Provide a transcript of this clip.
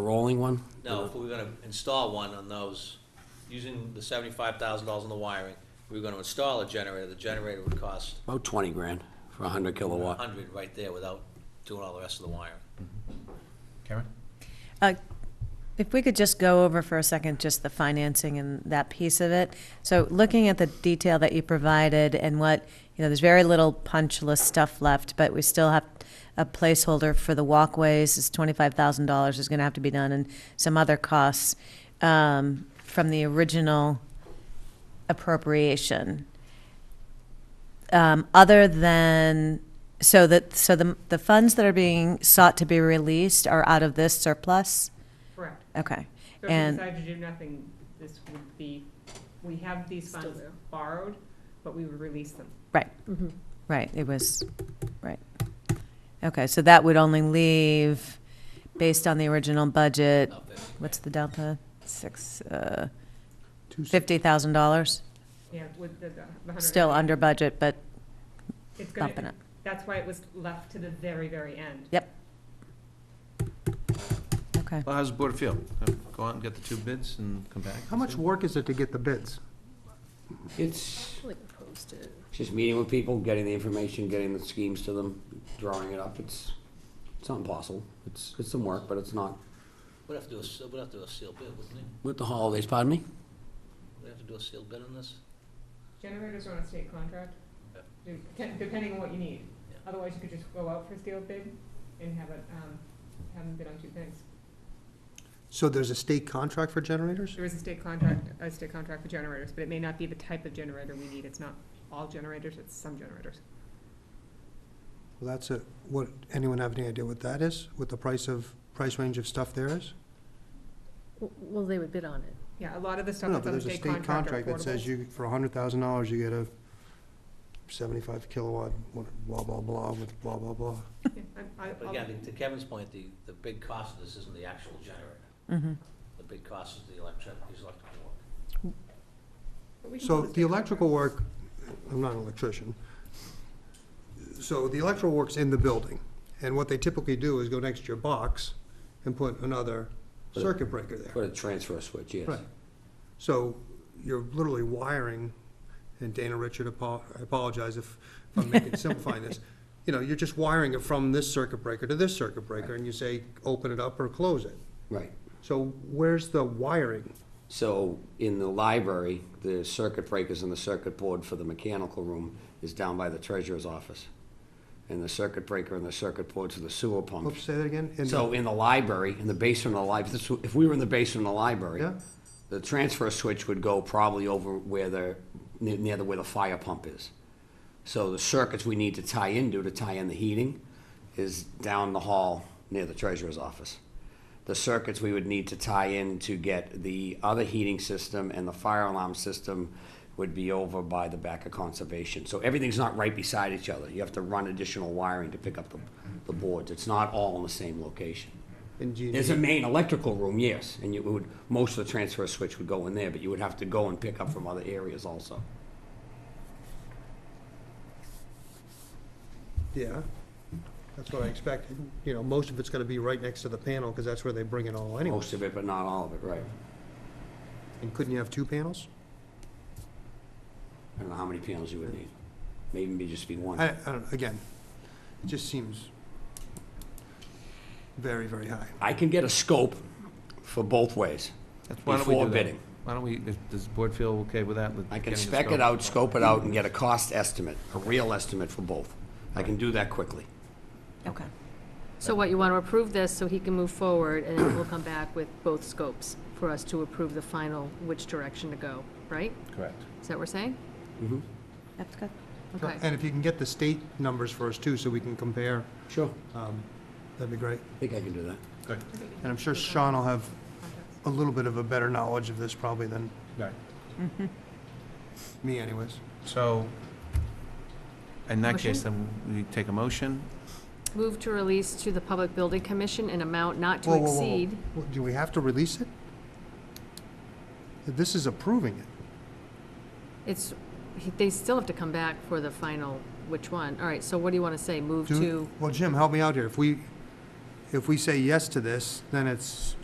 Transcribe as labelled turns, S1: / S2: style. S1: A rolling one?
S2: No, if we we're gonna install one on those, using the seventy-five thousand dollars in the wiring, if we were gonna install a generator, the generator would cost
S1: About twenty grand for a hundred
S2: a
S1: kilowatt.
S2: hundred right there without doing all the rest of the wiring.
S3: Karen?
S4: Uh, If we could just go over for a second, just the financing and that piece of it. So looking at the detail that you provided and what, you know, there's very little punch list stuff left, but we still have a placeholder for the walkways, it's twenty-five thousand dollars is gonna have to be done, and some other costs, um, from the original appropriation. Um, other than, so that, so the, the funds that are being sought to be released are out of this surplus?
S5: Correct.
S4: Okay,
S5: So if we
S4: and,
S5: decide to do nothing, this would be, we have these funds borrowed, but we would release them.
S4: Mm-hmm. right, it was, right. Okay, so that would only leave, based on the original budget,
S2: Not that-
S4: what's the delta? Six, uh, fifty thousand dollars?
S5: Yeah, with the, the the hundred.
S4: Still under budget, but
S5: It's
S4: bumping
S5: gonna,
S4: it.
S5: that's why it was left to the very, very end.
S4: Okay,
S3: Well, how's the board feel? Uh, Go out and get the two bids and come back?
S6: How much work is it to get the bids?
S1: It's just meeting with people, getting the information, getting the schemes to them, drawing it up. It's, it's not impossible. It's, it's some work, but it's not.
S2: We'd have to do a, seal- we'd have to do a sealed bid, wouldn't we?
S1: With the holidays, pardon me?
S2: We'd have to do a sealed bid on this?
S5: Generators are on a state contract,
S2: Yep.
S5: de- depending on what you need.
S2: Yeah.
S5: Otherwise, you could just go out for a steel bid and have it, um, have them bid on two things.
S6: So there's a state contract for generators?
S5: There is a state contract, a state contract for generators, but it may not be the type of generator we need. It's not all generators, it's some generators.
S6: Well, that's a, what, anyone have any idea what that is, what the price of, price range of stuff there is?
S7: Well, they would bid on it.
S5: Yeah, a lot of the stuff
S6: No,
S5: that's
S6: but
S5: on the
S6: there's a
S5: state
S6: state
S5: contract
S6: contract
S5: are
S6: that says
S5: portables.
S6: you, for a hundred thousand dollars, you get a seventy-five kilowatt, what- blah, blah, blah, with blah, blah, blah.
S5: Yeah, I- I-
S2: But
S5: I'll-
S2: again, to Kevin's point, the, the big cost of this isn't the actual generator.
S4: mhm.
S2: The big cost is the electric, is electrical work.
S5: But we can
S6: So
S5: put
S6: the
S5: state
S6: electrical
S5: contract.
S6: work, I'm not an electrician. So the electrical work's in the building, and what they typically do is go next to your box and put another circuit breaker there.
S1: Put a transfer switch, yes.
S6: Right. So you're literally wiring, and Dana Richard, apo- I apologize if if I'm making, simplifying this. You know, you're just wiring it from this circuit breaker to this circuit breaker, and you say, open it up or close it.
S1: Right.
S6: So where's the wiring?
S1: So in the library, the circuit breakers and the circuit board for the mechanical room is down by the treasurer's office. And the circuit breaker and the circuit boards for the sewer pump.
S6: Oops, say that again? In the-
S1: So in the library, in the basement of the library, if we were in the basement of the library,
S6: Yeah.
S1: the transfer switch would go probably over where the, near near the, where the fire pump is. So the circuits we need to tie into, to tie in the heating, is down the hall near the treasurer's office. The circuits we would need to tie in to get the other heating system and the fire alarm system would be over by the back of conservation. So everything's not right beside each other. You have to run additional wiring to pick up the, the boards. It's not all in the same location.
S6: In G and E.
S1: There's a
S6: G.
S1: main electrical room, yes, and you would, most of the transfer switch would go in there, but you would have to go and pick up from other areas also.
S6: Yeah, that's what I expected. You know, most of it's gonna be right next to the panel, because that's where they bring it all anyway.
S1: Most of it, but not all of it, right. Oh.
S6: And couldn't you have two panels?
S1: I don't know how many panels you would need. Maybe it'd just be one.
S6: I, I don't, again, it just seems very, very high.
S1: I can get a scope for both ways
S3: That's- Why don't we
S1: before
S3: do that?
S1: bidding.
S3: Why don't we, does does the board feel okay with that? with
S1: I can
S3: getting the
S1: spec
S3: scope?
S1: it out, scope it out, and get a cost estimate, a real estimate for both. I can do that quickly.
S4: okay.
S7: So what, you want to approve this so he can move forward, and then we'll come back with both scopes for us to approve the final, which direction to go, right?
S3: Correct.
S7: Is that what we're saying?
S4: That's good.
S7: Okay.
S6: And if you can get the state numbers for us too, so we can compare,
S1: Sure.
S6: um, that'd be great.
S1: I think I can do that.
S3: Good,
S6: And I'm sure Sean will have a little bit of a better knowledge of this probably than
S3: right.
S6: me anyways.
S3: So, in that case,
S7: Motion?
S3: then we take a motion.
S7: Move to release to the Public Building Commission an amount not to
S6: Whoa, whoa, whoa, whoa.
S7: exceed.
S6: Well, Do we have to release it? This is approving it.
S7: It's, he- they still have to come back for the final, which one? All right, so what do you want to say? Move
S6: Do-
S7: to?
S6: Well, Jim, help me out here. If we, if we say yes to this, then it's